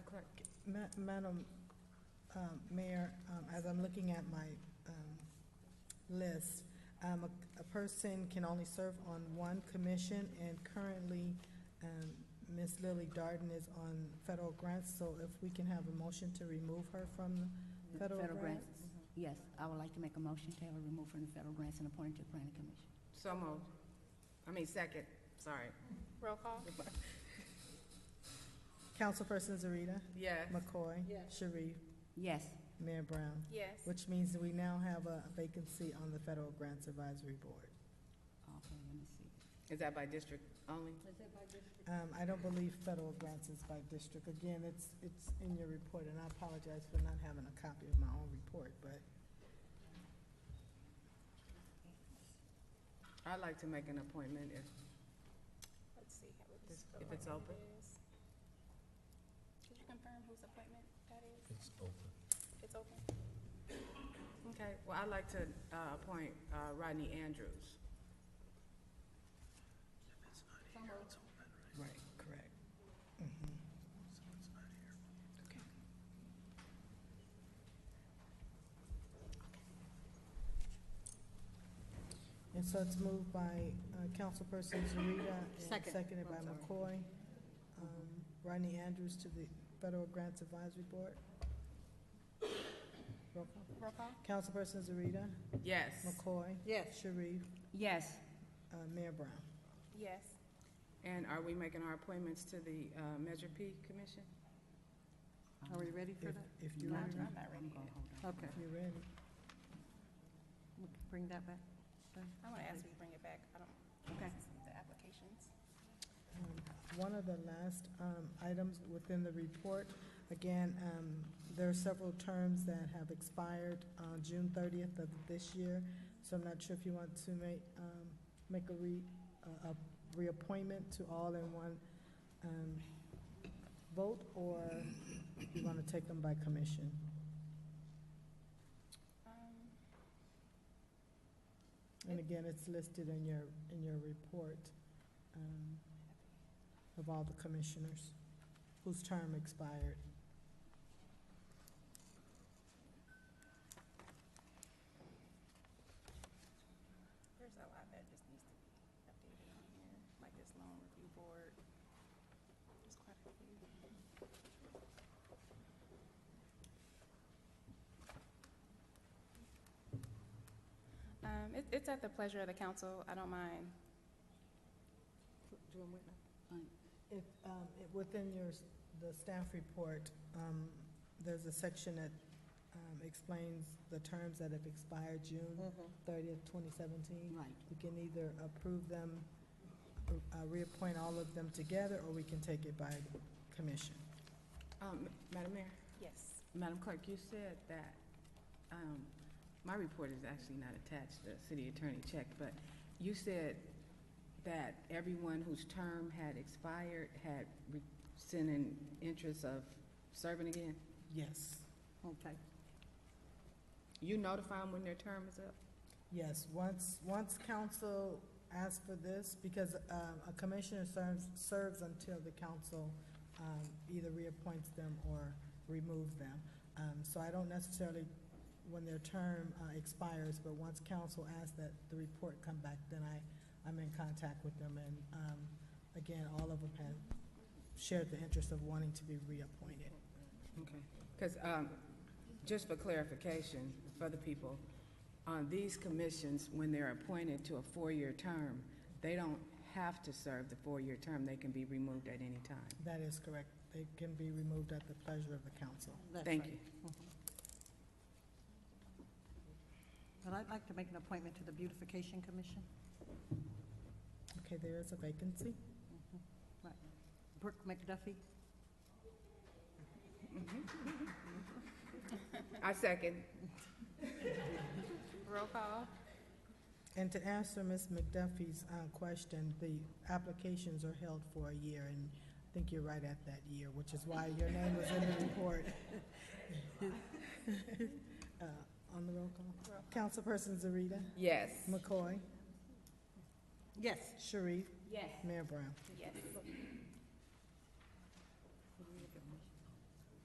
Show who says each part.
Speaker 1: Ma- Madam um, Mayor, um, as I'm looking at my um, list, um, a- a person can only serve on one commission, and currently um, Ms. Lily Darden is on federal grants, so if we can have a motion to remove her from the federal grants?
Speaker 2: Yes, I would like to make a motion to have her removed from the federal grants and appointed to the planning commission.
Speaker 3: So moved. I mean, second, sorry.
Speaker 4: Roll call?
Speaker 1: Councilperson Zarita,
Speaker 3: Yes.
Speaker 1: McCoy,
Speaker 4: Yes.
Speaker 1: Sharif,
Speaker 2: Yes,
Speaker 1: Mayor Brown,
Speaker 4: Yes.
Speaker 1: which means that we now have a vacancy on the Federal Grants Advisory Board.
Speaker 2: okay, let me see.
Speaker 3: Is that by district only?
Speaker 1: Um, I don't believe federal grants is by district. Again, it's, it's in your report, and I apologize for not having a copy of my own report, but
Speaker 3: I'd like to make an appointment if,
Speaker 4: Let's see how it is.
Speaker 3: If it's open.
Speaker 4: Could you confirm whose appointment that is?
Speaker 5: It's open.
Speaker 4: It's open?
Speaker 3: okay, well, I'd like to uh, appoint uh, Rodney Andrews.
Speaker 1: Right, correct. Mm-hmm. And so it's moved by uh, Councilperson Zarita and
Speaker 2: Second.
Speaker 1: seconded by
Speaker 2: I'm sorry.
Speaker 1: McCoy. Um, Rodney Andrews to the Federal Grants Advisory Board. Roll call.
Speaker 4: Roll call?
Speaker 1: Councilperson Zarita,
Speaker 3: Yes.
Speaker 1: McCoy. Yes. Sharif,
Speaker 2: Yes,
Speaker 1: uh, Mayor Brown.
Speaker 4: Yes.
Speaker 3: And are we making our appointments to the uh, Measure P Commission?
Speaker 2: Um,
Speaker 6: Are we ready for
Speaker 1: If,
Speaker 6: that?
Speaker 1: if you're
Speaker 2: Not
Speaker 1: ready,
Speaker 2: yet.
Speaker 4: I'm not ready
Speaker 2: I'm gonna
Speaker 4: yet.
Speaker 2: hold on.
Speaker 6: Okay,
Speaker 1: if you're ready.
Speaker 6: we can bring that back.
Speaker 4: I want to ask you to bring it back. I don't,
Speaker 2: Okay.
Speaker 4: the applications.
Speaker 1: Um, One of the last um, items within the report, again, um, there are several terms that have expired on June thirtieth of this year, so I'm not sure if you want to make, um, make a re, a- a reappointment to all in one um, vote, or you want to take them by commission?
Speaker 4: Um,
Speaker 1: And again, it's listed in your, in your report um, of all the commissioners whose term expired.
Speaker 4: There's a lot that just needs to be updated on here, like this loan review board. There's quite a few. Um, it, it's at the pleasure of the council. I don't mind. Doing what
Speaker 1: If, um, it- within your, s- the staff report, um, there's a section that, um, explains the terms that have expired June thirtieth, twenty seventeen.
Speaker 2: Right,
Speaker 1: We can either approve them, uh, reappoint all of them together, or we can take it by commission.
Speaker 3: Um, Madam Mayor?
Speaker 4: Yes.
Speaker 3: Madam Clerk, you said that, um, my report is actually not attached, the city attorney checked, but you said that everyone whose term had expired had re- sent in interest of serving again?
Speaker 1: Yes.
Speaker 2: okay.
Speaker 3: You notify them when their term is up?
Speaker 1: Yes, once, once council asks for this, because um, a commissioner serves, serves until the council um, either reappoints them or removes them. Um, So I don't necessarily, when their term uh, expires, but once council asks that the report come back, then I, I'm in contact with them. And um, again, all of them have shared the interest of wanting to be reappointed.
Speaker 3: Okay, because, um, just for clarification, for the people, on these commissions, when they're appointed to a four-year term, they don't have to serve the four-year term, they can be removed at any time.
Speaker 1: That is correct. They can be removed at the pleasure of the council.
Speaker 6: That's
Speaker 3: Thank
Speaker 6: right.
Speaker 3: you.
Speaker 2: Uh-huh.
Speaker 6: But I'd like to make an appointment to the Beautification Commission.
Speaker 1: Okay, there is a vacancy.
Speaker 2: Mm-hmm.
Speaker 6: Brooke McDuffie,
Speaker 3: I second.
Speaker 4: Roll call?
Speaker 1: And to answer Ms. McDuffie's uh, question, the applications are held for a year, and I think you're right at that year, which is why your name was in the report. Uh, On the roll call. Councilperson Zarita,
Speaker 3: Yes.
Speaker 1: McCoy,
Speaker 6: yes.
Speaker 1: Sharif,
Speaker 2: Yes.
Speaker 1: Mayor Brown.
Speaker 4: Yes.